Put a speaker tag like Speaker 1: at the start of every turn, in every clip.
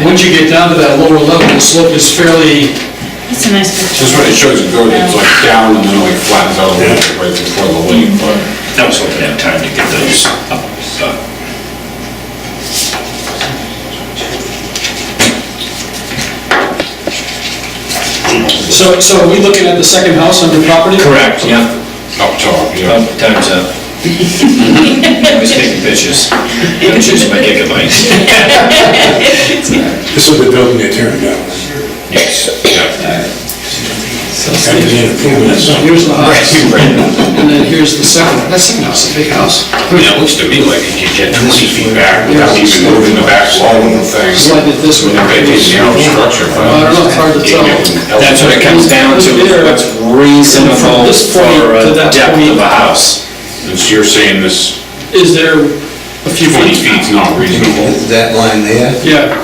Speaker 1: Once you get down to that lower level, the slope is fairly,
Speaker 2: It's a nice picture.
Speaker 3: Just when it shows it going, it's like down and then like flattens out a little bit right before the lake, but
Speaker 4: That was hoping to have time to get those up, uh, done.
Speaker 1: so, so are we looking at the second house on the property?
Speaker 4: Correct, yeah,
Speaker 3: up top,
Speaker 4: Well,
Speaker 1: Um,
Speaker 3: yeah.
Speaker 4: time's up. I was taking pictures, pictures of my gigabytes.
Speaker 5: This is the building they turned down.
Speaker 4: Yes.
Speaker 5: After the improvements.
Speaker 1: So Here's the house,
Speaker 4: Right.
Speaker 1: and then here's the second, that second house, a big house.
Speaker 4: It looks to me like it could get twenty feet back.
Speaker 3: Without even moving the back wall and things.
Speaker 1: Slide it this way.
Speaker 3: It may be a narrow structure, but.
Speaker 1: I don't know, it's hard to tell.
Speaker 4: That's what it comes down to, is what's
Speaker 1: From
Speaker 4: reasonable
Speaker 1: this point
Speaker 4: for
Speaker 1: to
Speaker 4: a
Speaker 1: that
Speaker 4: depth
Speaker 1: point.
Speaker 4: of a house.
Speaker 3: And so you're saying this
Speaker 1: Is there a few
Speaker 3: 20
Speaker 1: feet?
Speaker 3: feet's not reasonable?
Speaker 6: That line there,
Speaker 1: Yeah,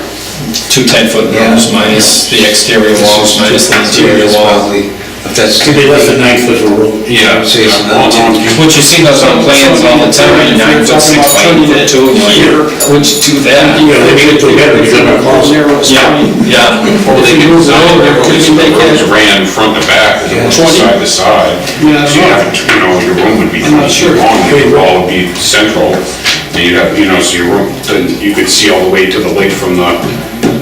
Speaker 4: Two ten-foot rooms minus the exterior walls, minus the interior
Speaker 6: it's
Speaker 4: wall.
Speaker 6: probably, if that's too
Speaker 5: They
Speaker 6: big,
Speaker 5: left a nice little room.
Speaker 3: Yeah.
Speaker 6: Say it's
Speaker 3: yeah,
Speaker 6: not
Speaker 3: on- on-
Speaker 4: What you see those on plans all the time, nine foot, six foot, eight foot, two, and you're, which to that?
Speaker 5: Yeah, they get together, they got a closet.
Speaker 1: narrow, it's
Speaker 4: Yeah,
Speaker 1: twenty.
Speaker 4: yeah.
Speaker 3: Well, they do
Speaker 1: move it
Speaker 3: design
Speaker 1: over,
Speaker 3: it,
Speaker 1: could
Speaker 3: because
Speaker 1: you
Speaker 3: the
Speaker 1: make
Speaker 3: rooms
Speaker 1: it-
Speaker 3: ran front to back, and it was
Speaker 1: 20?
Speaker 3: side to side.
Speaker 1: Yeah,
Speaker 3: So you
Speaker 1: no.
Speaker 3: have, you know, your room would be
Speaker 1: I'm not
Speaker 3: twenty feet
Speaker 1: sure.
Speaker 3: long, your wall would be central, and you'd have, you know, so your room, then you could see all the way to the lake from the,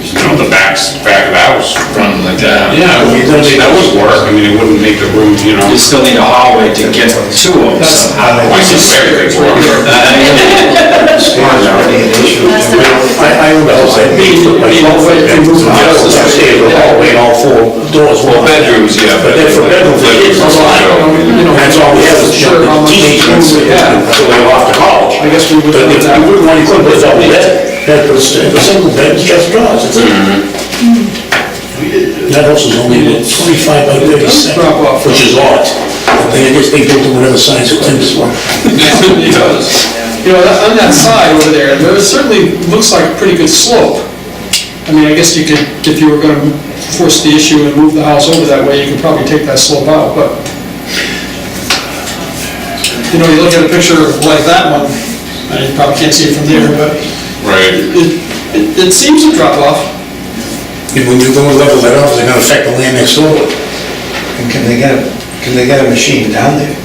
Speaker 3: you know, the backs, back of the house.
Speaker 4: Run like that.
Speaker 3: Yeah, that would work, I mean, it wouldn't make the room, you know,
Speaker 4: You still need a hallway to get to them somehow.
Speaker 3: I suspect it would work.
Speaker 5: I, I own the house, I made it, my whole way, I moved the house, I stayed in the hallway, all four doors were
Speaker 3: Well,
Speaker 5: locked.
Speaker 3: bedrooms, yeah.
Speaker 5: But then for bedrooms, they did,
Speaker 3: Bedrooms,
Speaker 5: so I, you know, that's all we have, is
Speaker 1: Sure, how much
Speaker 5: teaching,
Speaker 1: room we have.
Speaker 5: so they were off to college.
Speaker 1: I guess we would-
Speaker 5: But if you wouldn't want to put this double bed, that was, it was single bed, it's just drawers, it's it.
Speaker 3: Mm-hmm.
Speaker 5: That house is only about twenty-five by thirty-seven,
Speaker 1: Drop off.
Speaker 5: which is odd. They just, they built them whatever size it was, one.
Speaker 1: It does. You know, on that side over there, there certainly looks like a pretty good slope. I mean, I guess you could, if you were gonna force the issue and move the house over that way, you could probably take that slope out, but, you know, you look at a picture like that one, and you probably can't see it from there, but
Speaker 3: Right,
Speaker 1: it, it- it seems to drop off.
Speaker 5: And when you go and level that off, they're gonna affect the land next door.
Speaker 6: and can they get, a can they get a machine down there?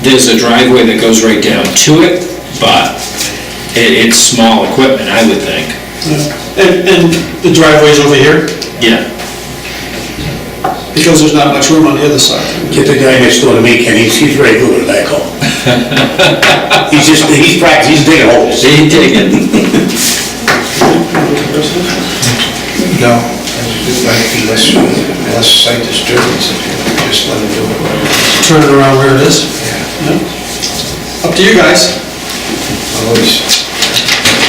Speaker 4: There's a driveway that goes right down to it, but it, it's small equipment, I would think.
Speaker 1: And, and the driveway's over here,
Speaker 4: Yeah.
Speaker 1: because there's not much room on the other side.
Speaker 5: Get the guy next door to me, Ken, he's, he's very good at that call. He's just, he's practicing, he's digging holes.
Speaker 4: They dig it.
Speaker 6: No, it might be less, less site disturbance if you just let them do it.
Speaker 1: Turn it around where it is. Up to you guys.
Speaker 6: Always,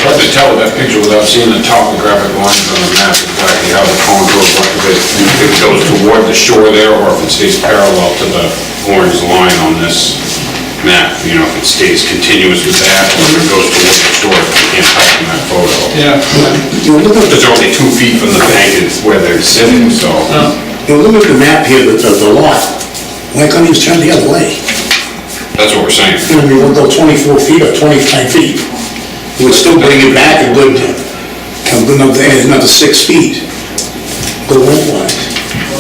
Speaker 3: hard to tell with that picture without seeing the topographic lines on the map, exactly how the contours look, if it, if it goes toward the shore there, or if it stays parallel to the orange line on this map, you know, if it stays continuous with that, or if it goes toward the shore, if you can't tell from that photo.
Speaker 1: Yeah.
Speaker 5: You know, look at the,
Speaker 3: Because they're only two feet from the bank, it's where they're sitting, so.
Speaker 5: you know, look at the map here, the, the lot. Why can't he just turn the other way?
Speaker 3: That's what we're saying.
Speaker 5: You know, we would go twenty-four feet or twenty-five feet. It would still bring it back a good, come another, another six feet. Go lengthwise.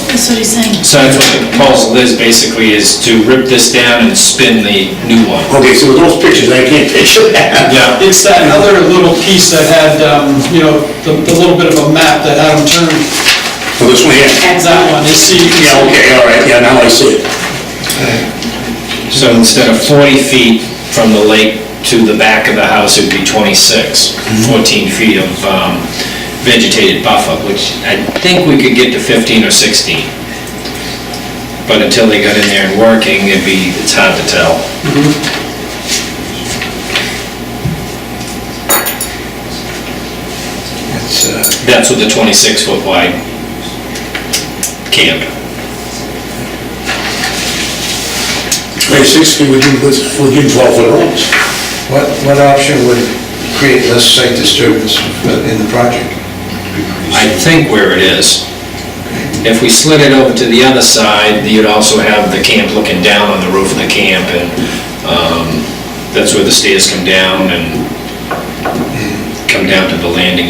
Speaker 2: That's what he's saying.
Speaker 4: So that's what the proposal is, basically, is to rip this down and spin the new one.
Speaker 5: Okay, so with those pictures, I can't picture that.
Speaker 4: Yeah.
Speaker 1: It's that other little piece that had, um, you know, the the little bit of a map that had them turn,
Speaker 5: Well, this one here.
Speaker 1: that one, E you see, you can
Speaker 5: Yeah,
Speaker 1: see.
Speaker 5: okay, all right, yeah, now I see it.
Speaker 4: So instead of 40 feet from the lake to the back of the house, it'd be 26, 14 feet of um, vegetated buffer, which I think we could get to 15 or 16. But until they got in there and working, it'd be, it's hard to tell.
Speaker 6: it's, uh,
Speaker 4: That's with the 26-foot wide camp.
Speaker 5: Like six feet, we can, put- we can twelve foot rooms.
Speaker 6: what, what option would create less site disturbance in the project?
Speaker 4: I think where it is. If we slid it over to the other side, you'd also have the camp looking down on the roof of the camp, and um, that's where the stairs come down and come down to the landing